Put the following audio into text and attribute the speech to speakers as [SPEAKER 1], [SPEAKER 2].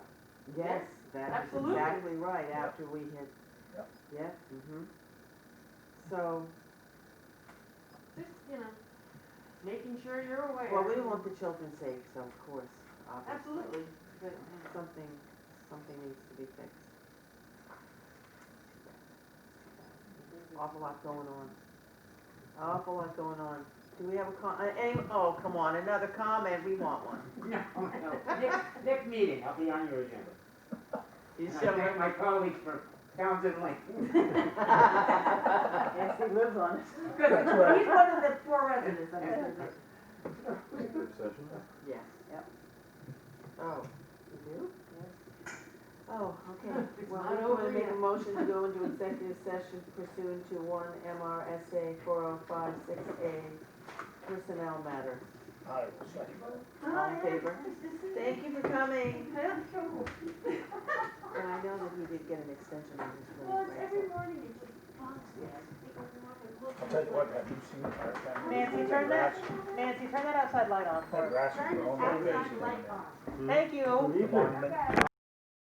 [SPEAKER 1] Yes, that's
[SPEAKER 2] absolutely.
[SPEAKER 1] exactly right,
[SPEAKER 3] Yep.
[SPEAKER 1] after we had,
[SPEAKER 3] Yep.
[SPEAKER 1] yes, mhm. So,
[SPEAKER 2] Just, you know, making sure you're
[SPEAKER 4] Oh,
[SPEAKER 2] aware.
[SPEAKER 1] well, we want the children safe, so of course, obviously.
[SPEAKER 2] Absolutely, but, you know,
[SPEAKER 1] Something, something needs to be fixed. Awful lot going on. Awful lot going on. Do we have a con, uh, any, oh, come on, another comment, we want one.
[SPEAKER 5] No, no, next, next meeting, I'll be on your agenda.
[SPEAKER 1] You
[SPEAKER 5] And I
[SPEAKER 1] sure?
[SPEAKER 5] thank my colleagues for Townsend Lane.
[SPEAKER 6] Yes, he lives on it.
[SPEAKER 2] he's one of the four residents that has it.
[SPEAKER 3] Executive session?
[SPEAKER 1] Yes.
[SPEAKER 6] Yep.
[SPEAKER 1] Oh, you do? Oh, okay.
[SPEAKER 2] It's
[SPEAKER 1] Well,
[SPEAKER 2] not
[SPEAKER 1] I'm
[SPEAKER 2] over
[SPEAKER 1] gonna make a
[SPEAKER 2] yet.
[SPEAKER 1] motion to go into executive session pursuant to one MRSA four oh five six A personnel matter.
[SPEAKER 3] I will second that.
[SPEAKER 1] All in favor? Thank you for coming. And I know that he did get an extension on his
[SPEAKER 4] Well, it's every
[SPEAKER 1] leave.
[SPEAKER 4] morning it just bugs me. I just think I'm not gonna look at
[SPEAKER 3] I'll tell you
[SPEAKER 4] it.
[SPEAKER 3] what, have you seen our family?
[SPEAKER 6] Nancy, turn that, Nancy, turn that outside light on
[SPEAKER 3] That
[SPEAKER 6] for us.
[SPEAKER 3] rascal
[SPEAKER 4] Turn
[SPEAKER 3] for
[SPEAKER 4] this
[SPEAKER 3] all my days.
[SPEAKER 4] outside light off.
[SPEAKER 6] Thank you.
[SPEAKER 3] Good morning.
[SPEAKER 4] Okay.